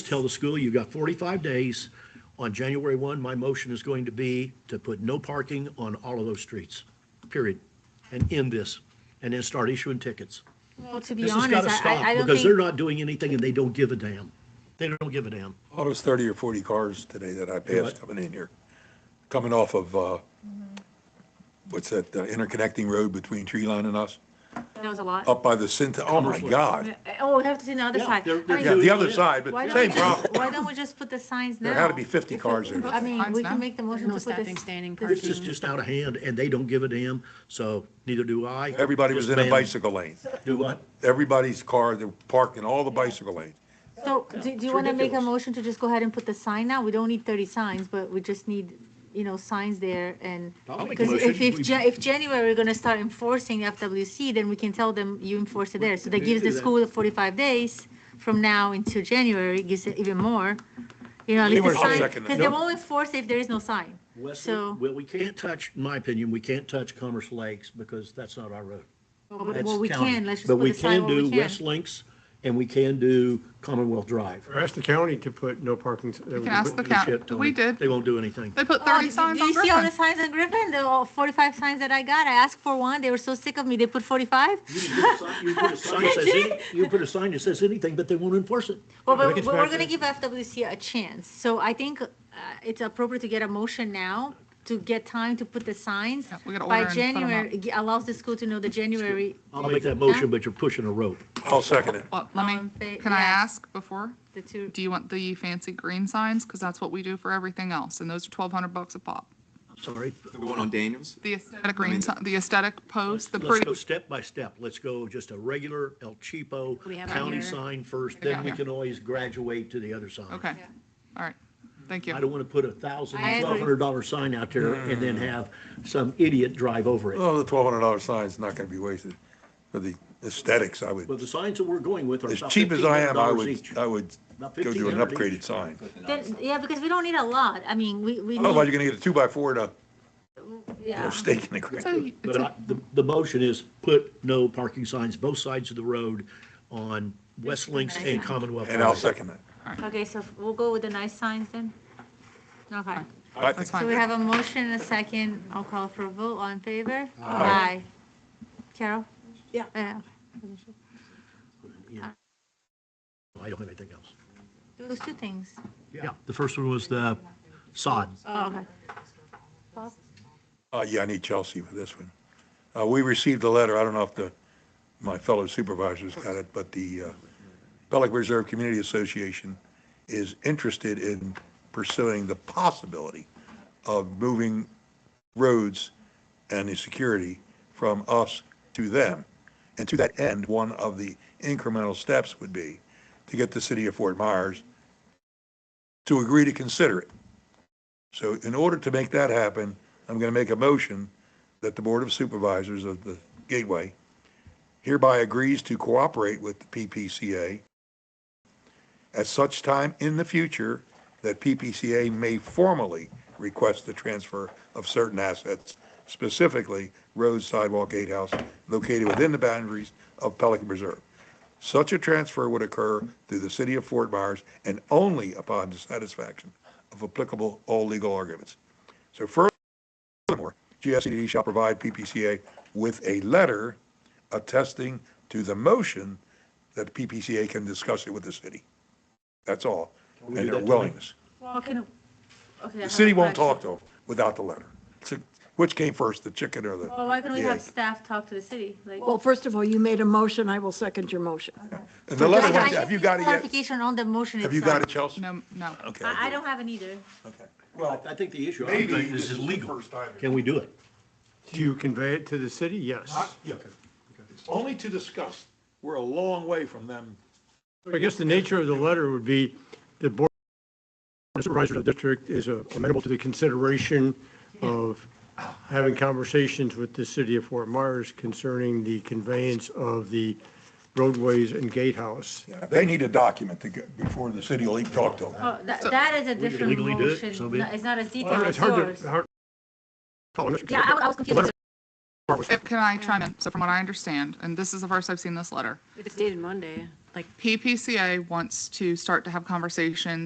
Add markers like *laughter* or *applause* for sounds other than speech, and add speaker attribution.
Speaker 1: tell the school, you've got 45 days. On January 1, my motion is going to be to put no parking on all of those streets, period. And end this, and then start issuing tickets.
Speaker 2: Well, to be
Speaker 1: This has got
Speaker 2: honest,
Speaker 1: to
Speaker 2: I- I, I
Speaker 1: stop,
Speaker 2: don't
Speaker 1: because they're
Speaker 2: think,
Speaker 1: not doing anything and they don't give a damn. They don't give a damn.
Speaker 3: Almost 30 or 40 cars today that I passed
Speaker 1: Right.
Speaker 3: coming in here, coming off of, uh, what's that, uh, interconnecting road between Tree Line and us,
Speaker 2: that was a lot.
Speaker 3: up by the Cinta, oh my
Speaker 1: Commerce Way.
Speaker 3: God.
Speaker 2: Oh, we have to see the other
Speaker 1: Yeah,
Speaker 2: side.
Speaker 1: they're-
Speaker 2: I
Speaker 1: they're
Speaker 2: mean,
Speaker 3: Yeah, the other
Speaker 1: Yeah.
Speaker 3: side,
Speaker 2: Why
Speaker 3: but
Speaker 2: don't
Speaker 3: same
Speaker 2: we just-
Speaker 3: problem.
Speaker 2: Why don't we just put the signs now?
Speaker 3: There had to be 50 cars there.
Speaker 2: I mean,
Speaker 4: Signs
Speaker 2: we can
Speaker 4: now.
Speaker 2: make the motion
Speaker 4: No
Speaker 2: to put the.
Speaker 4: standing, standing
Speaker 2: the-
Speaker 1: This is just out of hand and they don't give a damn, so neither do I.
Speaker 3: Everybody was
Speaker 1: Just
Speaker 3: in a
Speaker 1: ban-
Speaker 3: bicycle lane.
Speaker 1: Do what?
Speaker 3: Everybody's car, they're parked in all the bicycle lanes.
Speaker 2: So, do, do you want to make a
Speaker 1: ridiculous.
Speaker 2: motion to just go ahead and put the sign now? We don't need thirty signs, but we just need, you know, signs there and.
Speaker 1: I'll make a
Speaker 2: Because if,
Speaker 1: motion.
Speaker 2: if,
Speaker 1: We-
Speaker 2: Ja- if January, we're gonna start enforcing FWC, then we can tell them you enforce it there. So that
Speaker 1: We
Speaker 2: gives
Speaker 1: can
Speaker 2: the
Speaker 1: do that.
Speaker 2: school forty-five days from now into January, gives it even more. You know, at least the
Speaker 3: Anyway, I'll
Speaker 2: sign,
Speaker 3: second that.
Speaker 2: because they won't enforce if there is no sign.
Speaker 1: Wesley,
Speaker 2: So,
Speaker 1: well, we can't touch, in my opinion, we can't touch Commerce Lakes because that's not our road. That's
Speaker 2: well, we
Speaker 1: county.
Speaker 2: can, let's just
Speaker 1: But
Speaker 2: put
Speaker 1: we
Speaker 2: a sign
Speaker 1: can
Speaker 2: where
Speaker 1: do
Speaker 2: we
Speaker 1: West
Speaker 2: can.
Speaker 1: Links and we can do Commonwealth Drive.
Speaker 5: Or ask the county to put no parking. uh,
Speaker 4: can ask the county.
Speaker 1: Shit, Tony,
Speaker 4: We did.
Speaker 1: They won't do
Speaker 4: *laughs*
Speaker 1: anything.
Speaker 4: They put
Speaker 2: Oh,
Speaker 4: 30
Speaker 2: do-
Speaker 4: signs
Speaker 2: Do
Speaker 4: on
Speaker 2: you see all the
Speaker 4: Griffin.
Speaker 2: signs on Griffin? The all forty-five signs that I got, I asked for one, they were so sick of me, they put forty-five.
Speaker 1: You can put a sign- you can put a sign that says any- You can put a sign that says anything, but they won't enforce it.
Speaker 2: Well,
Speaker 5: But
Speaker 2: but
Speaker 5: it's
Speaker 2: but we're
Speaker 5: back-
Speaker 2: gonna give FWC a chance, so I think uh, it's appropriate to get a motion now to get time to put the signs.
Speaker 4: Yeah, we gotta
Speaker 2: By
Speaker 4: order and put 'em
Speaker 2: January, it gi- allows the school to know the January,
Speaker 1: I'll make that motion, but you're pushing a rope.
Speaker 3: I'll second it.
Speaker 4: Well,
Speaker 2: All
Speaker 6: Um,
Speaker 4: let
Speaker 2: in
Speaker 4: me,
Speaker 2: fa-
Speaker 4: can I
Speaker 2: yeah.
Speaker 4: ask before?
Speaker 2: the two,
Speaker 4: Do you want the fancy green signs? Because that's what we do for everything else, and those are 1,200 bucks a pop.
Speaker 1: Sorry.
Speaker 7: The one on Daniels?
Speaker 4: The aesthetic green, si- the aesthetic post, the
Speaker 1: Let's go
Speaker 4: pretty,
Speaker 1: step by step. Let's go just a regular El Cheapo
Speaker 2: We have it
Speaker 1: county
Speaker 2: here.
Speaker 1: sign first, then we
Speaker 4: Yeah.
Speaker 1: can always graduate to the other sign.
Speaker 4: okay, all right, thank you.
Speaker 1: I don't want to put a thousand,
Speaker 2: I agree.
Speaker 1: twelve hundred dollar sign out there and
Speaker 4: Mm.
Speaker 1: then have some idiot drive over it.
Speaker 3: Oh, the $1,200 sign's not going to be wasted for the aesthetics, I would.
Speaker 1: But the signs that we're going with are
Speaker 3: As
Speaker 1: about
Speaker 3: cheap as I am, I
Speaker 1: $1,500
Speaker 3: would, uh,
Speaker 1: each.
Speaker 3: I would
Speaker 1: About
Speaker 3: go do an
Speaker 1: $1,500 each.
Speaker 3: upgraded sign.
Speaker 2: then, yeah, because we don't need a lot, I mean, we, we
Speaker 1: Oh,
Speaker 3: Otherwise,
Speaker 2: need,
Speaker 3: you're gonna get a two-by-four to
Speaker 2: yeah.
Speaker 3: a stake in the ground.
Speaker 4: So you- it's
Speaker 1: But
Speaker 4: a-
Speaker 1: I, the, the motion is put no parking signs both sides of the road on West Links and Commonwealth.
Speaker 3: And I'll
Speaker 1: Drive.
Speaker 3: second that.
Speaker 2: Okay, so we'll go with the nice signs then? Okay,
Speaker 3: I
Speaker 4: That's
Speaker 3: think-
Speaker 2: so
Speaker 4: fine.
Speaker 2: we have a motion and a second, I'll call for a vote, all in favor?
Speaker 3: Aye.
Speaker 2: Carol? Uh,
Speaker 8: Yeah.
Speaker 2: Yeah.
Speaker 1: Yeah. I don't have anything else.
Speaker 2: Those two things,
Speaker 1: Yeah, the first one was the sod.
Speaker 2: oh, okay.
Speaker 3: Uh, yeah, I need Chelsea for this one. Uh, we received a letter, I don't know if the, my fellow supervisors got it, but the, uh, Pelican Reserve Community Association is interested in pursuing the possibility of moving roads and the security from us to them. And to that end, one of the incremental steps would be to get the city of Fort Myers to agree to consider it. So in order to make that happen, I'm going to make a motion that the Board of Supervisors of the Gateway hereby agrees to cooperate with the PPCA at such time in the future that PPCA may formally request the transfer of certain assets, specifically roads, sidewalk, gatehouse, located within the boundaries of Pelican Reserve. Such a transfer would occur through the city of Fort Myers and only upon the satisfaction of applicable all legal arguments. So furthermore, GSCD shall provide PPCA with a letter attesting to the motion that PPCA can discuss it with the city. That's all.
Speaker 1: we
Speaker 3: And
Speaker 1: do
Speaker 3: their
Speaker 1: that tonight?
Speaker 3: willingness.
Speaker 2: Well, can, okay.
Speaker 3: The city won't talk to them without the letter. It's a- Which came first, the chicken or
Speaker 2: Well,
Speaker 3: the,
Speaker 2: why can't we have
Speaker 3: Yeah.
Speaker 2: staff talk to the city? Like,
Speaker 8: Well, first of all, you made a motion, I will second your motion.
Speaker 3: and the letter
Speaker 2: I- I
Speaker 3: went, have you got it yet?
Speaker 2: Clarification on the motion itself.
Speaker 3: Have you got it, Chelsea?
Speaker 4: No, no.
Speaker 3: Okay.
Speaker 2: I, I don't have it either.
Speaker 3: Okay.
Speaker 1: Well, I think the issue, I
Speaker 3: Maybe
Speaker 1: think this is legal. Can we do it?
Speaker 5: Do you convey it to the city? Yes.
Speaker 3: Yeah. It's only to discuss. We're a long way from them.
Speaker 5: I guess the nature of the letter would be the board of supervisors of the district is uh, amenable to the consideration of having conversations with the city of Fort Myers concerning the conveyance of the roadways and gatehouse.
Speaker 3: They need a document to get, before the city will even talk to them.
Speaker 2: Oh, that, that is a different
Speaker 1: legally do it,
Speaker 2: motion.
Speaker 1: so be it.
Speaker 2: No, It's not as detailed
Speaker 5: Well,
Speaker 2: as
Speaker 5: It's hard
Speaker 2: yours.
Speaker 5: to, hard. oh, it's-
Speaker 2: Yeah, I I was confused.
Speaker 4: If- Can I chime in? So from what I understand, and this is the first I've seen this letter,
Speaker 6: It's dated Monday.
Speaker 4: like PPCA wants to start to have conversations